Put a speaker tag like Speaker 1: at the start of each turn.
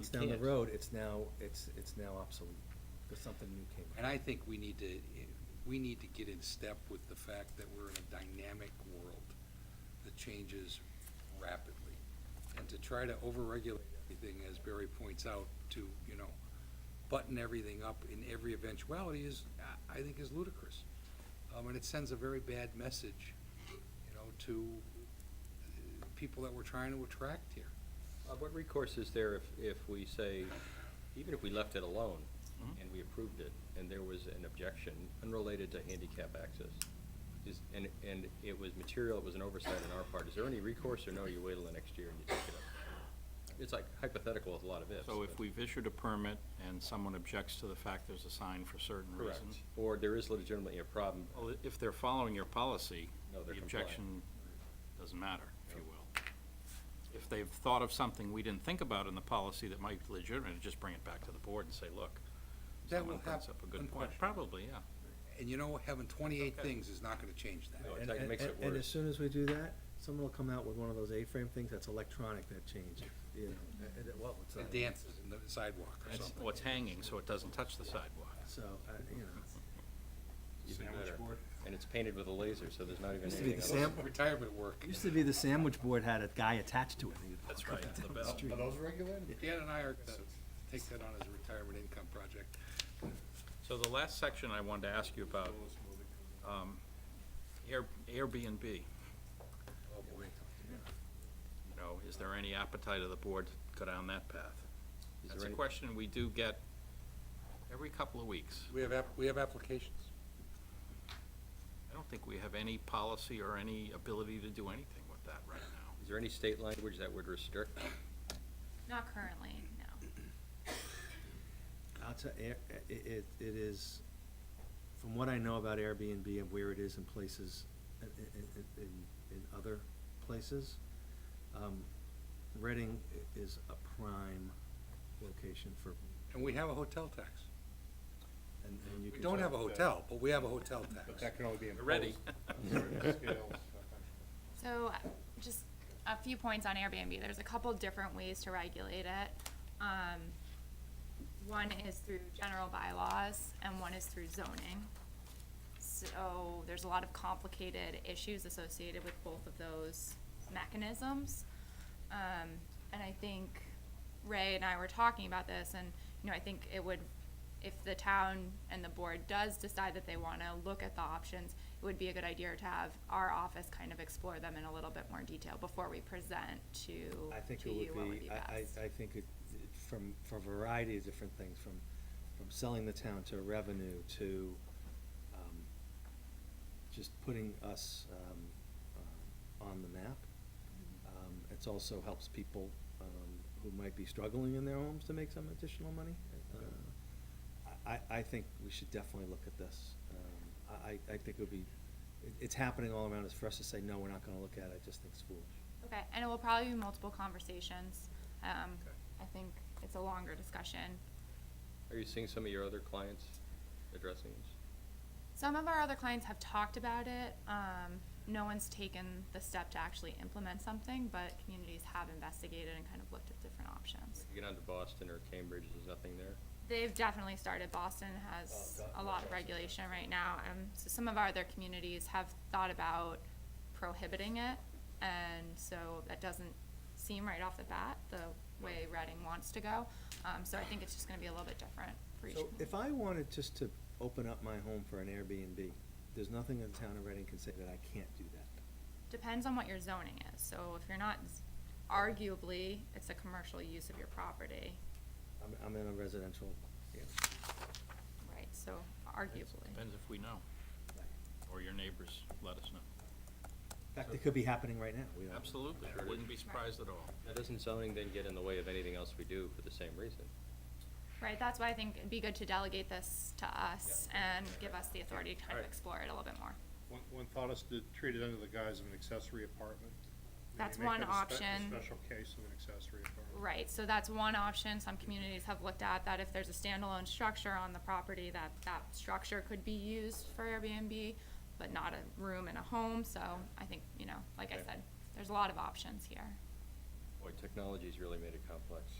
Speaker 1: It's down the
Speaker 2: can't.
Speaker 1: road, it's now, it's, it's now obsolete, because something new came out.
Speaker 2: And I think we need to, eh, we need to get in step with the fact that we're in a dynamic world that changes rapidly. And to try to overregulate everything, as Barry points out, to, you know, button everything up in every eventuality is, I I think is ludicrous. Um, and it sends a very bad message, you know, to uh, people that we're trying to attract here.
Speaker 3: Uh, What recourse is there if, if we say, even if we left it alone
Speaker 4: Mm-hmm.
Speaker 3: and we approved it, and there was an objection unrelated to handicap access? Is, and, and it was material, it was an oversight on our part, is there any recourse or no, you wait till the next year and you take it up? It's like hypothetical with a lot of ifs.
Speaker 4: So if
Speaker 3: but-
Speaker 4: we've issued a permit and someone objects to the fact there's a sign for certain
Speaker 3: Correct.
Speaker 4: reasons.
Speaker 3: Or there is legitimately a problem,
Speaker 4: Well, if they're following your policy,
Speaker 3: No, they're
Speaker 4: Oh, the
Speaker 3: compliant.
Speaker 4: objection doesn't matter, if you will. If they've thought of something we didn't think about in the policy that might be legitimate, just bring it back to the board and say, look,
Speaker 2: That will
Speaker 4: someone brings
Speaker 2: hap-
Speaker 4: up a good point.
Speaker 2: unquestionably.
Speaker 4: Probably, yeah.
Speaker 2: And you know, having twenty-eight
Speaker 4: Okay.
Speaker 2: things is not gonna change that.
Speaker 3: No, it
Speaker 1: And-
Speaker 3: like
Speaker 1: and-
Speaker 3: makes it
Speaker 1: and- And as
Speaker 3: worse.
Speaker 1: soon as we do that, someone will come out with one of those A-frame things that's electronic that changes, you know, and- and- well, it's.
Speaker 2: It
Speaker 1: not-
Speaker 2: dances in the sidewalk or
Speaker 4: It's-
Speaker 2: something.
Speaker 4: Well, it's hanging, so it doesn't touch the sidewalk.
Speaker 1: So, uh, you know,
Speaker 3: even better. And it's painted with a laser, so there's not even
Speaker 1: Used to be
Speaker 3: anything
Speaker 1: the
Speaker 3: else.
Speaker 1: same-
Speaker 2: Sam, retirement work.
Speaker 1: used to be the sandwich board had a guy attached to it. and you'd
Speaker 4: That's
Speaker 1: walk up
Speaker 4: right,
Speaker 1: and
Speaker 4: the
Speaker 1: down
Speaker 4: bell.
Speaker 1: street.
Speaker 5: those regulated?
Speaker 2: Dan and I are gonna take that on as a retirement income project.
Speaker 4: So the last section I wanted to ask you about, um, Air- Airbnb, you
Speaker 2: Oh, boy.
Speaker 4: know, is there any appetite of the board to go down that path?
Speaker 3: Is
Speaker 4: That's
Speaker 3: there
Speaker 4: a
Speaker 3: any-
Speaker 4: question we do get every couple of weeks.
Speaker 2: We have, app- we have applications.
Speaker 4: I don't think we have any policy or any ability to do anything with that right now.
Speaker 3: Is there any state language that would restrict?
Speaker 6: Not currently, no.
Speaker 1: I'll tell, it, it, it is, from what I know about Airbnb and where it is in places, i- i- i- in, in other places, um, Reading i- is a prime location for,
Speaker 2: And we have a hotel tax.
Speaker 1: and, and you
Speaker 2: We
Speaker 1: can.
Speaker 2: don't
Speaker 1: tell-
Speaker 2: have a hotel, but we have a hotel
Speaker 5: But
Speaker 2: tax.
Speaker 5: that can only be imposed.
Speaker 4: Ready?
Speaker 6: So, just a few points on Airbnb. There's a couple different ways to regulate it. Um, one is through general bylaws and one is through zoning. So, there's a lot of complicated issues associated with both of those mechanisms. Um, and I think Ray and I were talking about this and, you know, I think it would, if the town and the board does decide that they wanna look at the options, it would be a good idea to have our office kind of explore them in a little bit more detail before we present to,
Speaker 1: I think
Speaker 6: to
Speaker 1: it
Speaker 6: you what
Speaker 1: would
Speaker 6: would be
Speaker 1: be,
Speaker 6: best.
Speaker 1: I, I, I think it, it- from, for a variety of different things, from, from selling the town to revenue to, um, just putting us, um, um, on the map. Um, it's also helps people, um, who might be struggling in their homes to make some additional money. Uh, I, I- I think we should definitely look at this. Um, I, I I think it would be, it, it's happening all around us. For us to say, no, we're not gonna look at it, I just think it's foolish.
Speaker 6: Okay, and it will probably be multiple conversations. Um,
Speaker 2: Okay.
Speaker 6: I think it's a longer discussion.
Speaker 3: Are you seeing some of your other clients addressing this?
Speaker 6: Some of our other clients have talked about it. Um, no one's taken the step to actually implement something, but communities have investigated and kind of looked at different options.
Speaker 3: You get onto Boston or Cambridge, there's nothing there?
Speaker 6: They've definitely started. Boston has a lot of regulation right now. Um, so some of our other communities have thought about prohibiting it. And so that doesn't seem right off the bat, the way Reading wants to go. Um, so I think it's just gonna be a little bit different for each
Speaker 1: So
Speaker 6: community.
Speaker 1: if I wanted just to open up my home for an Airbnb, there's nothing in the town of Reading can say that I can't do that.
Speaker 6: Depends on what your zoning is, so if you're not, z- arguably, it's a commercial use of your property,
Speaker 1: I'm, I'm in a residential, yeah.
Speaker 6: right, so arguably.
Speaker 4: Depends if we know, or your neighbors let us know.
Speaker 1: In fact, it could be happening right now. We don't know.
Speaker 4: Absolutely,
Speaker 3: Sure it is.
Speaker 4: wouldn't be surprised at all.
Speaker 3: Now, doesn't zoning then get in the way of anything else we do for the same reason?
Speaker 6: Right, that's why I think it'd be good to delegate this to us and give us the authority to kind of
Speaker 5: Alright.
Speaker 6: explore it a little bit more.
Speaker 5: One, one thought is to treat it under the guise of an accessory apartment. Maybe
Speaker 6: That's
Speaker 5: make
Speaker 6: one
Speaker 5: it a spe- a
Speaker 6: option.
Speaker 5: Special case of an accessory apartment.
Speaker 6: Right, so that's one option, some communities have looked at that, if there's a standalone structure on the property, that, that structure could be used for Airbnb, but not a room in a home, so I think, you know, like I
Speaker 3: Okay.
Speaker 6: said, there's a lot of options here.
Speaker 3: Boy, technology's really made it complex.